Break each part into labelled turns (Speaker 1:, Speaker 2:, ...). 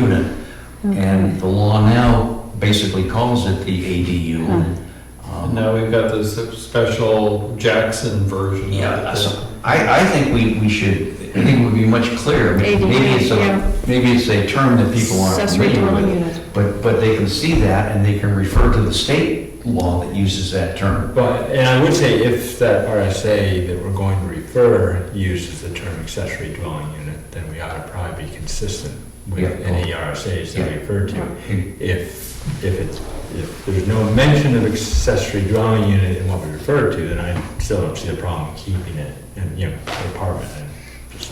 Speaker 1: unit. And the law now basically calls it the ADU. unit.
Speaker 2: And
Speaker 1: Um,
Speaker 2: now we've got this special Jackson version. of
Speaker 1: Yeah,
Speaker 2: it.
Speaker 1: so I, I think we, we should, I think it would be much clearer.
Speaker 3: ADU,
Speaker 1: Maybe it's
Speaker 3: yeah.
Speaker 1: a, maybe it's a term that people aren't
Speaker 3: Accessory
Speaker 1: familiar
Speaker 3: dwelling
Speaker 1: with.
Speaker 3: unit.
Speaker 1: But, but they can see that and they can refer to the state law that uses that term.
Speaker 4: But, and I would say if that RSA that we're going to refer uses the term accessory dwelling unit, then we ought to probably be consistent
Speaker 1: Yeah.
Speaker 4: with any RSA's that we refer to.
Speaker 1: And-
Speaker 4: If, if it's, if there's no mention of accessory dwelling unit in what we refer to, then I still don't see a problem keeping it in, you know, apartment.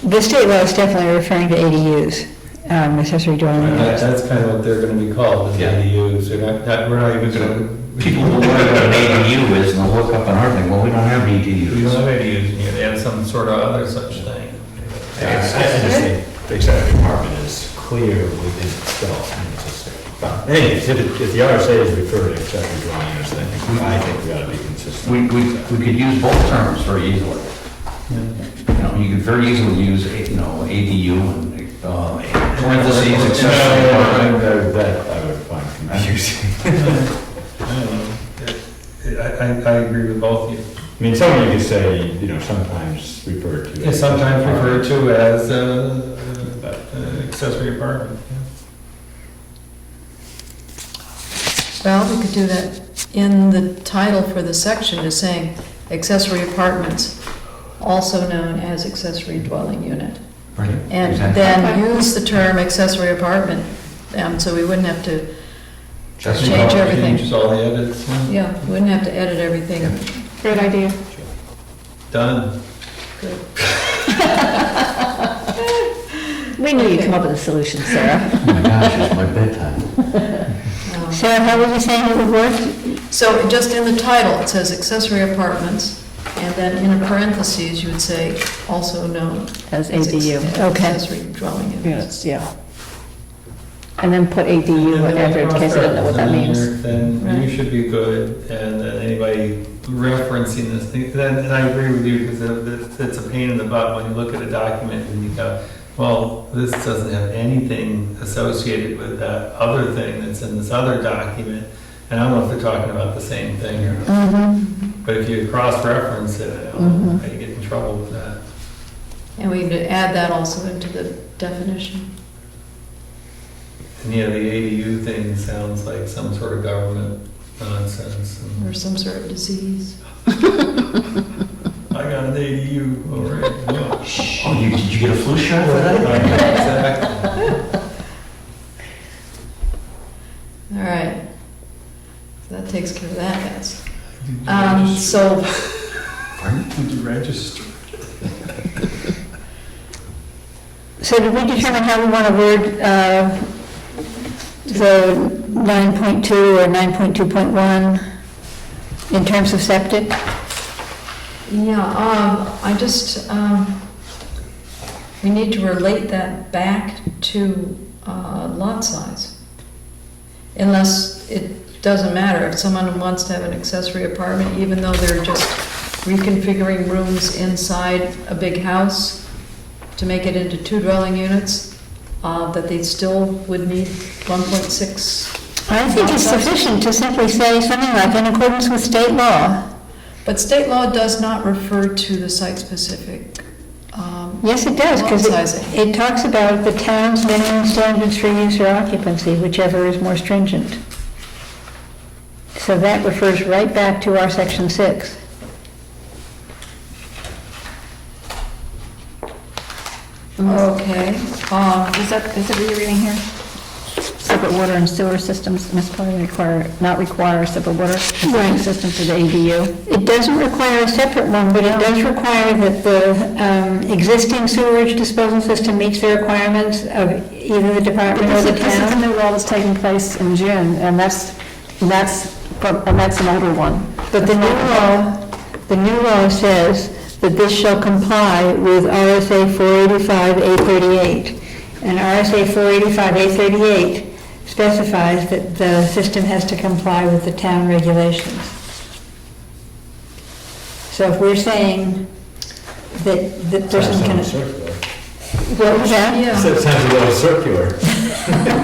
Speaker 5: The state law is definitely referring to ADUs, um, accessory dwelling
Speaker 2: And that-
Speaker 5: units.
Speaker 2: That's kind of what they're gonna be called, is
Speaker 1: Yeah.
Speaker 2: ADUs, they're not, not- we're not even gonna.
Speaker 1: People will wonder what an ADU is and they'll look up on our thing, well, we don't have
Speaker 2: We don't
Speaker 1: ADUs.
Speaker 2: have ADUs, you know, add some sort of other such thing.
Speaker 4: I just think the accessory apartment is clear within itself. and it's just- but Anyways, if, it- if the RSA is referred to accessory dwelling units, then I think we ought to be consistent.
Speaker 1: We, we, we could use both terms very easily. You know, you could very easily use, you know, ADU and uh, parentheses, accessory apartment.
Speaker 4: That that I would find confusing.
Speaker 2: I don't know. It- I, I, I agree with both of you.
Speaker 4: I mean, someone could say, you know, sometimes referred to.
Speaker 2: It's
Speaker 4: as-
Speaker 2: sometimes referred to as, uh, uh, accessory apartment.
Speaker 3: Well, we could do that in the title for the section, is saying accessory apartments, also known as accessory dwelling unit.
Speaker 1: Right.
Speaker 3: And
Speaker 1: Exactly.
Speaker 3: then use the term accessory apartment, um, so we wouldn't have to,
Speaker 1: That's
Speaker 3: change
Speaker 1: about-
Speaker 3: everything.
Speaker 2: Change all the edits, yeah.
Speaker 3: yeah, wouldn't have to edit everything.
Speaker 5: Great idea.
Speaker 2: done.
Speaker 3: Good.
Speaker 5: We knew you'd come up with a solution, Sarah.
Speaker 1: Oh my gosh, it's my bedtime.
Speaker 3: Um,
Speaker 5: Sarah, how were you saying it would work?
Speaker 3: So just in the title, it says accessory apartments, and then in parentheses, you would say also known
Speaker 5: As
Speaker 3: as
Speaker 5: ADU,
Speaker 3: acc-
Speaker 5: okay.
Speaker 3: accessory dwelling
Speaker 5: Yes,
Speaker 3: units.
Speaker 5: yeah. And then put ADU
Speaker 2: And
Speaker 5: in
Speaker 2: then
Speaker 5: there in case I don't know what that
Speaker 2: cross-reference
Speaker 5: means.
Speaker 2: in there, Then you
Speaker 3: Right.
Speaker 2: should be good, and then anybody referencing this thing, then, and I agree with you, because it's a pain in the butt when you look at a document and you go, well, this doesn't have anything associated with that other thing that's in this other document, and I don't know if they're talking about the same thing, or, not.
Speaker 5: Mhm.
Speaker 2: but if you cross-reference it, I don't
Speaker 5: Mm-hmm.
Speaker 2: know, how you get in trouble with that.
Speaker 3: And we need to add that also into the definition.
Speaker 2: And, yeah, the ADU thing sounds like some sort of government nonsense, and-
Speaker 3: or some sort of disease.
Speaker 2: I got an ADU, all right.
Speaker 1: Oh, you, did you get a flu shot for that?
Speaker 2: Exactly.
Speaker 3: All right. That takes care of that, guys. Um, so,
Speaker 2: Did you register?
Speaker 5: So did we determine how we want to word, uh, the 9.2 or 9.2.1 in terms of septic?
Speaker 3: yeah, um, I just, um, we need to relate that back to, uh, lot size. Unless it doesn't matter, if someone wants to have an accessory apartment, even though they're just reconfiguring rooms inside a big house to make it into two dwelling units, uh, that they still would need one point six
Speaker 5: I think it's sufficient to simply say something like, in accordance with state law.
Speaker 3: But state law does not refer to the site-specific. um,
Speaker 5: Yes, it does, because
Speaker 3: Lot
Speaker 5: it,
Speaker 3: sizing.
Speaker 5: it talks about the town's minimum standards for use or occupancy, whichever is more stringent. So that refers right back to our section six.
Speaker 3: Okay, um,
Speaker 6: Is that, is that what you're reading here? Separate water and sewer systems municipality require, not require a separate water and sewer
Speaker 5: Right.
Speaker 6: system for the ADU.
Speaker 5: It doesn't require a separate one, but it does require that the um, existing sewerage disposal system meets the requirements of either the department or
Speaker 6: Because
Speaker 5: the
Speaker 6: this is a
Speaker 5: town.
Speaker 6: new law that's taking place in June, and that's, and that's, from- and that's an older one.
Speaker 5: But the new law, the new law says that this shall comply with RSA 485A38. And RSA 485A38 specifies that the system has to comply with the town regulations. So if we're saying that the person
Speaker 4: Sounds a little
Speaker 5: can...
Speaker 4: circular.
Speaker 5: What was that?
Speaker 3: yeah,
Speaker 4: Sounds a little circular.